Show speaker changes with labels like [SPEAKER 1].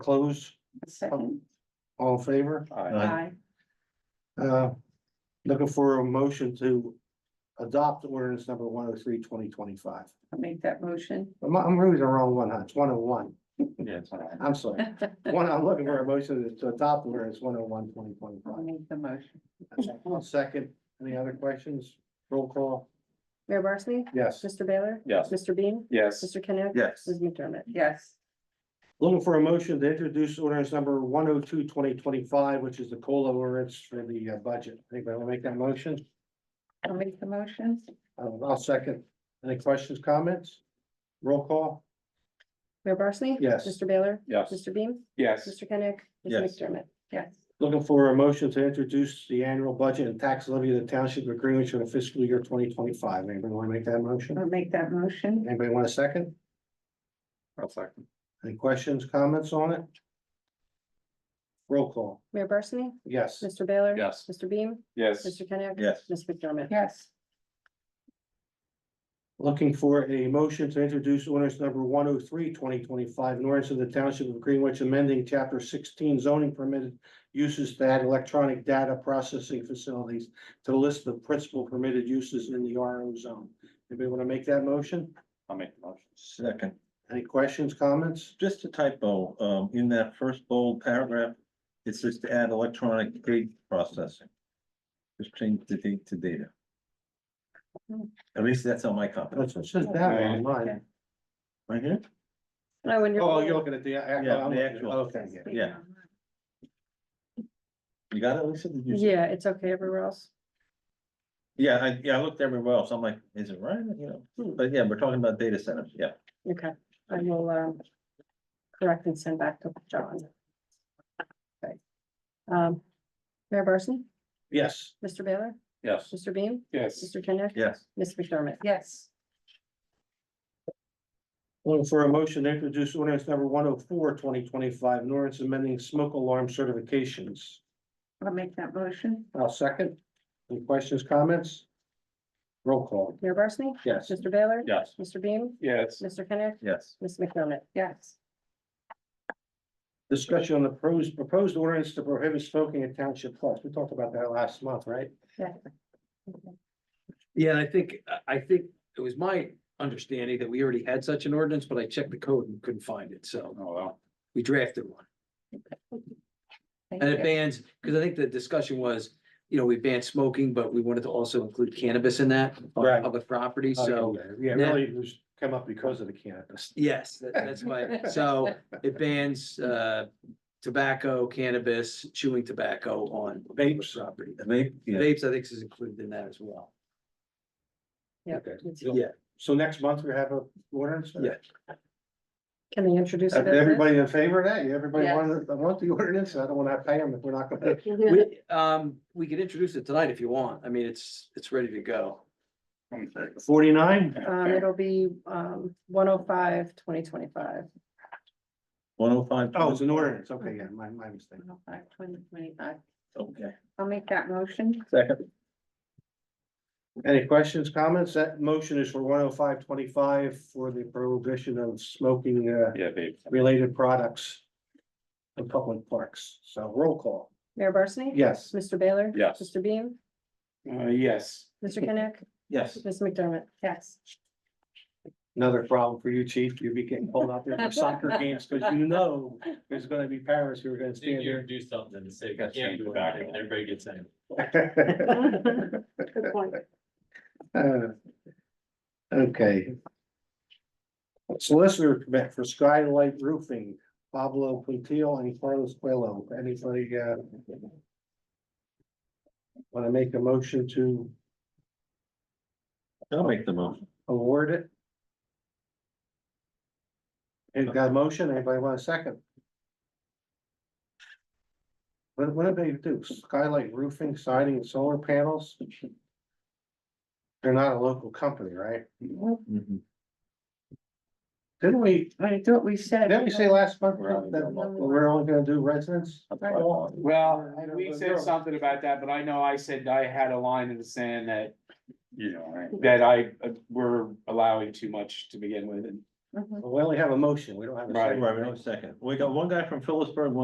[SPEAKER 1] close,
[SPEAKER 2] Second,
[SPEAKER 1] all in favor?
[SPEAKER 3] Aye.
[SPEAKER 2] aye,
[SPEAKER 1] Uh, looking for a motion to adopt ordinance number one oh three twenty twenty-five.
[SPEAKER 2] I'll make that motion.
[SPEAKER 1] I'm, I'm reading the wrong one, huh? It's one oh one.
[SPEAKER 3] Yes.
[SPEAKER 1] I'm sorry. One, I'm looking for a motion to adopt ordinance one oh one twenty
[SPEAKER 2] I'll
[SPEAKER 1] twenty-five.
[SPEAKER 2] make the motion.
[SPEAKER 1] Second, any other questions? Roll call,
[SPEAKER 4] Mayor Barsney?
[SPEAKER 1] yes.
[SPEAKER 4] Mr. Baylor?
[SPEAKER 3] Yes.
[SPEAKER 4] Mr. Bean?
[SPEAKER 3] Yes.
[SPEAKER 4] Mr. Kenneth?
[SPEAKER 3] Yes.
[SPEAKER 4] Ms. McDermott?
[SPEAKER 2] Yes,
[SPEAKER 1] Looking for a motion to introduce ordinance number 102 2025, which is the COLA ordinance for the uh, budget. Anybody want to make that motion? Um,
[SPEAKER 2] I'll make the motion.
[SPEAKER 1] I'll I'll second. Any questions, comments? Roll call?
[SPEAKER 4] Mayor Barsney?
[SPEAKER 1] Yes.
[SPEAKER 4] Mr. Baylor?
[SPEAKER 3] Yes.
[SPEAKER 4] Mr. Bean?
[SPEAKER 3] Yes.
[SPEAKER 4] Mr. Kenneth?
[SPEAKER 3] Yes.
[SPEAKER 4] Ms. McDermott?
[SPEAKER 2] Yes,
[SPEAKER 1] Looking for a motion to introduce the annual budget and tax levy of the township of Greenwich for the fiscal year twenty twenty-five. Anybody want to make that motion?
[SPEAKER 2] I'll make that motion.
[SPEAKER 1] Anybody want a second?
[SPEAKER 3] I'll second.
[SPEAKER 1] Any questions, comments on it? Roll call?
[SPEAKER 4] Mayor Barsney?
[SPEAKER 1] Yes.
[SPEAKER 4] Mr. Baylor?
[SPEAKER 3] Yes.
[SPEAKER 4] Mr. Bean?
[SPEAKER 3] Yes.
[SPEAKER 4] Mr. Kenneth?
[SPEAKER 3] Yes.
[SPEAKER 4] Ms. McDermott?
[SPEAKER 2] Yes,
[SPEAKER 1] Looking for a motion to introduce ordinance number 103 2025, an ordinance of the township of Greenwich amending chapter sixteen zoning permitted uses to add electronic data processing facilities to the list of principal permitted uses in the RO zone. Anybody want to make that motion?
[SPEAKER 3] I'll make the motion. Second,
[SPEAKER 1] Any questions, comments?
[SPEAKER 3] just a typo, um, in that first bold paragraph, it says to add electronic date processing. Just change the date to data.
[SPEAKER 4] Hmm.
[SPEAKER 3] At least that's on my copy,
[SPEAKER 1] That's what it says that one on mine.
[SPEAKER 3] right here,
[SPEAKER 4] I wonder.
[SPEAKER 1] Oh, you're looking at the. act- I'm
[SPEAKER 3] Yeah, the
[SPEAKER 1] looking at-
[SPEAKER 3] actual.
[SPEAKER 1] Okay, yeah.
[SPEAKER 3] yeah. You got it, Lisa? Did you see-
[SPEAKER 4] Yeah, it's okay everywhere else.
[SPEAKER 3] Yeah, I, yeah, I looked everywhere else, I'm like, is it right, you know,
[SPEAKER 4] Hmm.
[SPEAKER 3] but yeah, we're talking about data centers, yeah.
[SPEAKER 4] Okay, I will, um, correct and send back to John. Okay. Um, Mayor Barsney?
[SPEAKER 1] Yes,
[SPEAKER 4] Mr. Baylor?
[SPEAKER 3] Yes.
[SPEAKER 4] Mr. Bean?
[SPEAKER 3] Yes.
[SPEAKER 4] Mr. Kenneth?
[SPEAKER 3] Yes,
[SPEAKER 4] Ms. McDermott?
[SPEAKER 2] yes,
[SPEAKER 1] looking for a motion to introduce ordinance number 104 2025, an ordinance amending smoke alarm certifications.
[SPEAKER 2] I'll make that motion.
[SPEAKER 1] I'll second. Any questions, comments? Roll call.
[SPEAKER 4] Mayor Barsney?
[SPEAKER 1] Yes.
[SPEAKER 4] Mr. Baylor?
[SPEAKER 3] yes.
[SPEAKER 4] Mr. Bean?
[SPEAKER 1] Yes.
[SPEAKER 4] Mr. Kenneth?
[SPEAKER 3] Yes.
[SPEAKER 4] Ms. McDermott?
[SPEAKER 2] Yes,
[SPEAKER 1] Discussion on the proposed, proposed ordinance to prohibit smoking at township clubs. We talked about that last month, right?
[SPEAKER 5] Yeah, and I think, I- I think it was my understanding that we already had such an ordinance, but I checked the code and couldn't find it, so.
[SPEAKER 6] Oh,
[SPEAKER 5] We drafted one.
[SPEAKER 2] thank
[SPEAKER 5] And it
[SPEAKER 2] you.
[SPEAKER 5] bans, because I think the discussion was, you know, we banned smoking, but we wanted to also include cannabis in that. on
[SPEAKER 1] Right.
[SPEAKER 5] Public property, so,
[SPEAKER 1] Yeah, really, it was come up because of the cannabis.
[SPEAKER 5] yes, that- that's why, so it bans uh tobacco, cannabis, chewing tobacco on public
[SPEAKER 1] Vapes.
[SPEAKER 5] property.
[SPEAKER 3] Vape, yeah,
[SPEAKER 5] Vapes, I think is included in that as well.
[SPEAKER 4] Yeah.
[SPEAKER 1] Okay.
[SPEAKER 4] it's-
[SPEAKER 5] Yeah,
[SPEAKER 1] So next month we have a ordinance?
[SPEAKER 5] Yeah.
[SPEAKER 4] Can they introduce it? as is?
[SPEAKER 1] Everybody in favor of that? Everybody
[SPEAKER 2] Yes.
[SPEAKER 1] wanted, want the ordinance? I don't want to pay them if we're not gonna.
[SPEAKER 5] we, um, we could introduce it tonight if you want. I mean, it's, it's ready to go.
[SPEAKER 1] Forty-nine?
[SPEAKER 4] Um, it'll be, um, 105 2025.
[SPEAKER 3] one oh five.
[SPEAKER 1] Oh, it's an ordinance. Okay, yeah, my, my mistake.
[SPEAKER 2] Five, twenty, twenty-five.
[SPEAKER 3] Okay,
[SPEAKER 2] I'll make that motion.
[SPEAKER 3] second,
[SPEAKER 1] Any questions, comments? That motion is for one oh five twenty-five for the prohibition of smoking uh
[SPEAKER 3] yeah, vape.
[SPEAKER 1] related products. In public parks, so roll call,
[SPEAKER 4] Mayor Barsney?
[SPEAKER 1] yes.
[SPEAKER 4] Mr. Baylor?
[SPEAKER 3] Yes.
[SPEAKER 4] Mr. Beam?
[SPEAKER 6] Uh,
[SPEAKER 1] yes.
[SPEAKER 4] Mr. Kenneth?
[SPEAKER 3] Yes.
[SPEAKER 4] Ms. McDermott?
[SPEAKER 2] Yes.
[SPEAKER 1] Another problem for you, chief, you'll be getting pulled out there for soccer games, because you know there's gonna be parents who are gonna
[SPEAKER 7] Do
[SPEAKER 1] stand
[SPEAKER 7] you do something to say,
[SPEAKER 3] Gotta
[SPEAKER 7] can't
[SPEAKER 3] change
[SPEAKER 7] do
[SPEAKER 3] the
[SPEAKER 7] it, back,
[SPEAKER 3] back.
[SPEAKER 7] and everybody gets in.
[SPEAKER 1] there.
[SPEAKER 4] Good point.
[SPEAKER 1] Uh, Okay. Solicitor permit for Skylight Roofing, Pablo Quintil and Carlos Quello, anybody, uh. Want to make a motion to
[SPEAKER 3] I'll make the motion.
[SPEAKER 1] award it? You've got a motion, anybody want a second? What, what do they do, Skylight Roofing, siding, and solar panels? They're not a local company, right?
[SPEAKER 3] Mhm.
[SPEAKER 1] Didn't we,
[SPEAKER 2] I thought we said.
[SPEAKER 1] Didn't we say last month
[SPEAKER 3] We're only
[SPEAKER 1] that
[SPEAKER 3] doing
[SPEAKER 2] one.
[SPEAKER 1] we're only gonna do residents?
[SPEAKER 3] That's what I thought.
[SPEAKER 6] Well,
[SPEAKER 1] I don't
[SPEAKER 6] we
[SPEAKER 1] know.
[SPEAKER 6] said something about that, but I know I said I had a line in the sand that, you know, that I, uh, we're allowing too much to begin with, and
[SPEAKER 2] Mhm.
[SPEAKER 1] Well, We only have a motion, we don't have a
[SPEAKER 6] Right.
[SPEAKER 1] second.
[SPEAKER 3] Right, we don't have a second. We got one guy from Phillipsburg, one